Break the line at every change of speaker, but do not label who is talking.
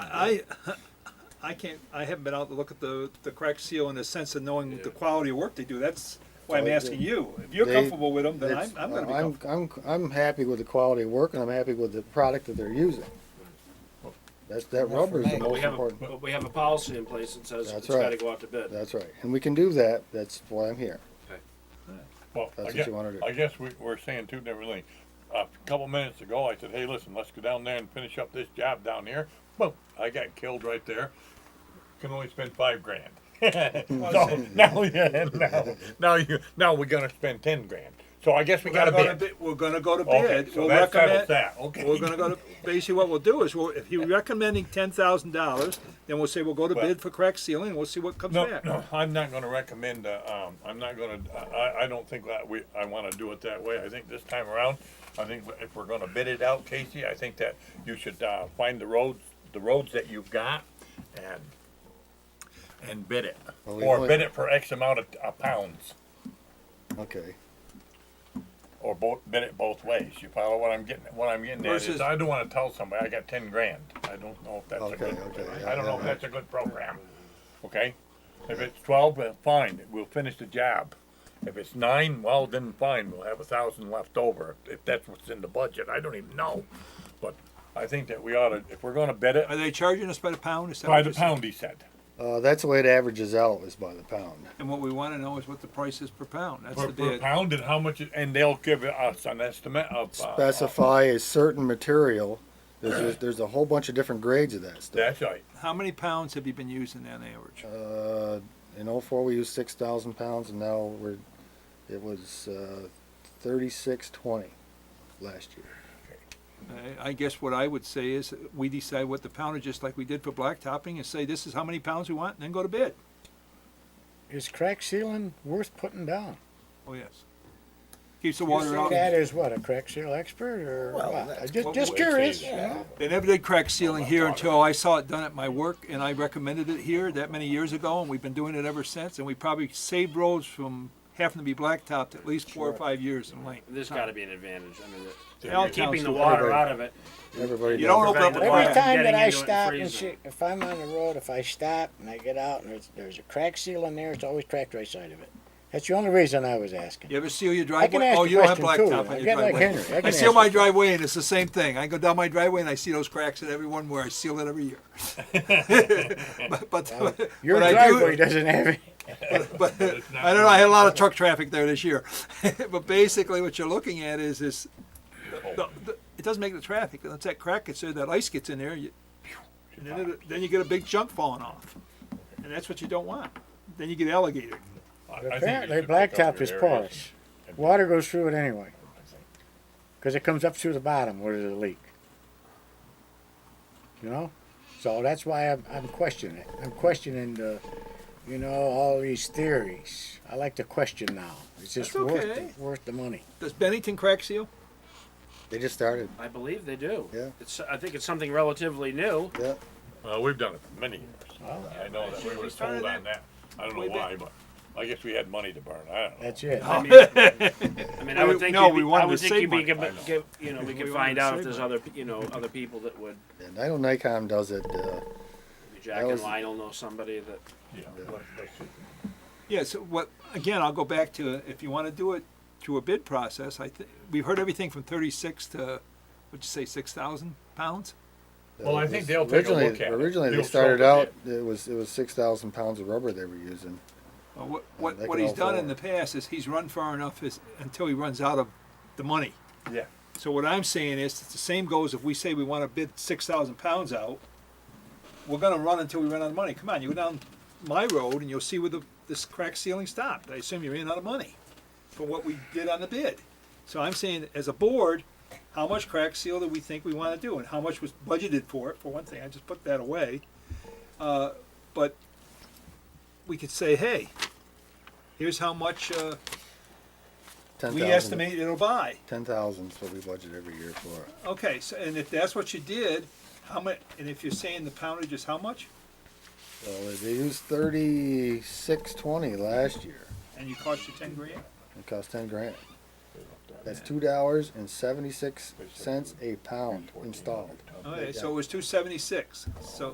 I, I can't, I haven't been out to look at the, the crack seal in the sense of knowing the quality of work they do. That's why I'm
Well,
asking
they-
you. If you're
Oh, they-
comfortable with them, then I'm,
It's-
I'm gonna be
I'm-
comfortable.
I'm, I'm happy with the quality of work and I'm happy with the product that they're using. That's, that rubber is the
But
most
we have, a-
important.
but we have a policy in place that says
That's
it's
right.
gotta go out to bid.
That's right. And we can do that. That's why I'm here.
Well,
That's
I
what
guess,
you wanna do.
I guess we, we're saying two different things. A couple minutes ago, I said, hey, listen, let's go down there and finish up this job down here. Boom, I got killed right there. Can only spend five grand. So now, yeah, now, now you, now we're gonna spend ten grand. So I guess we
We're gonna
gotta
go to
be.
bid, we're gonna go to
Okay,
bid.
so
We'll
that settles
recommend,
that, okay.
we're gonna go to, basically what we'll do is, we'll if you're recommending ten thousand dollars, then we'll say we'll go to
Well-
bid for crack sealing and we'll see what comes
No,
back.
no, I'm not gonna recommend, uh, um, I'm not gonna, I, I don't think that we, I wanna do it that way. I think this time around, I think if we're gonna bid it out, Casey, I think that you should, uh, find the roads, the roads that you've got and, and bid it.
Well, we
Or
only-
bid it for X amount of, uh pounds,
Okay.
or both, bid it both ways. You follow what I'm getting, what I'm getting at
Versus-
is, I don't wanna tell somebody I got ten grand. I don't know if that's a
Okay,
good,
okay,
I don't know
yeah,
if that's a good program, okay? If it's twelve, well, fine, we'll finish the job. If it's nine, well, then fine, we'll have a thousand left over, if that's what's in the budget, I don't even know. But I think that we ought to, if we're gonna bid
Are
it,
they charging us by the pound? Is that
by
what
the
you're saying?
pound, he said.
Uh, that's the way it averages out is by the pound.
And what we wanna know is what the price is per pound. That's
Per,
the
per
bid.
pound and how much, it- and they'll give us an estimate of, uh,
Specify a certain material. There's, there's, there's a whole bunch of different grades of that stuff.
that's right.
How many pounds have you been using on average?
Uh, in oh-four, we used six thousand pounds and now we're, it was, uh, thirty-six twenty last year.
I- I guess what I would say is, we decide what the poundage is like we did for blacktopping and say, this is how many pounds we want, and then go to bid.
Is crack sealing worth putting down?
Oh, yes. Keeps the
You
water
say
out.
that
They
is what, a crack seal expert or what? I Just,
what
just
we
curious,
say,
you know?
never did crack sealing here until I saw it done at my work, and I recommended it here that many years ago, and we've been doing it ever since, and we probably saved roads from having to be blacktopped at least four or five years in length.
There's gotta be an advantage, I mean,
They
the-
all
you're keeping
count
the
for
water
everybody.
out of it.
Everybody
You
does
don't
it.
open up the
Every
fire.
Every time that
Getting
I
into it and
stop and
freezing.
shit, if I'm on the road, if I stop and I get out and there's, there's a crack seal in there, it's always cracked right side of it. That's the only reason I was asking.
You ever seal your
I can
driveway?
ask
Oh,
a
you don't have
question,
blacktop
too. I
on your
get like
driveway.
Henry. I
I
can
seal
ask
my
a-
driveway and it's the same thing. I go down my driveway and I see those cracks in every one where I seal it every year. But, but.
Your
but I do-
driveway doesn't have any.
but I don't know. I had a lot of truck traffic there this year. but basically, what you're looking at is this. The, the, it doesn't make the traffic. Once that crack gets there, that ice gets in there, you, and then, it, then you get a big chunk falling off, and that's what you don't want. Then you get alligator.
I- I think you
Apparently,
should pick up
blacktop
your
is
areas.
porous. Water goes through it anyway. Because it comes up through the bottom where there's a leak. You know? So that's why I'm, I'm questioning it. I'm questioning the, you know, all these theories. I like to question now. It's just
That's
worth,
okay.
the, worth the money.
Does Bennington crack seal?
They just started.
I believe they do.
Yeah.
It's, I think it's something relatively new.
Yeah.
Uh, we've done it for many years. I know that we
we
were
started
told
that
on that. I don't know
way back.
why, but I guess we had money to burn. I don't know.
That's it.
I mean, I mean, I
We-
would think,
no,
you'd be-
we wanted
I would
to
think you'd
save
be,
money.
given- give- you know, we
We
could
wanted
find
to
out if
save
there's other, pe- you know, other people that would,
And I know Nikon does it, uh,
Jack
That
and
was-
Lionel know somebody that,
Yeah, but that's it.
Yes. what again? I'll go back to if you want to do it through a bid process. I th- we've heard everything from 36 to what'd you say, six thousand pounds.
Well, I think they'll take a
originally,
look at it.
originally they
They'll
started
sort
out,
it.
it was, it was six thousand pounds of rubber they were using.
Well, what,
Yeah,
what,
they
what
can
he's
all
done
fall.
in the past is he's run far enough is, until he runs out of the money.
Yeah.
So what I'm saying is, it's the same goes if we say we wanna bid six thousand pounds out, we're gonna run until we run out of money. Come on, you go down my road and you'll see where the, this crack ceiling stopped. I assume you ran out of money for what we did on the bid. So I'm saying, as a board, how much crack seal do we think we wanna do and how much was budgeted for it, for one thing, I just put that away. Uh, but we could say, hey, here's how much, uh,
Ten
we
thousand-
estimate it'll buy.
Ten thousand is what we budget every year for.
Okay, so, and if that's what you did, how much, and if you're saying the poundage is how much,
So they used thirty-six twenty last year.
and you cost you ten grand?
It cost ten grand. That's two dollars and seventy-six cents a pound installed.
Okay, so it was two seventy-six, so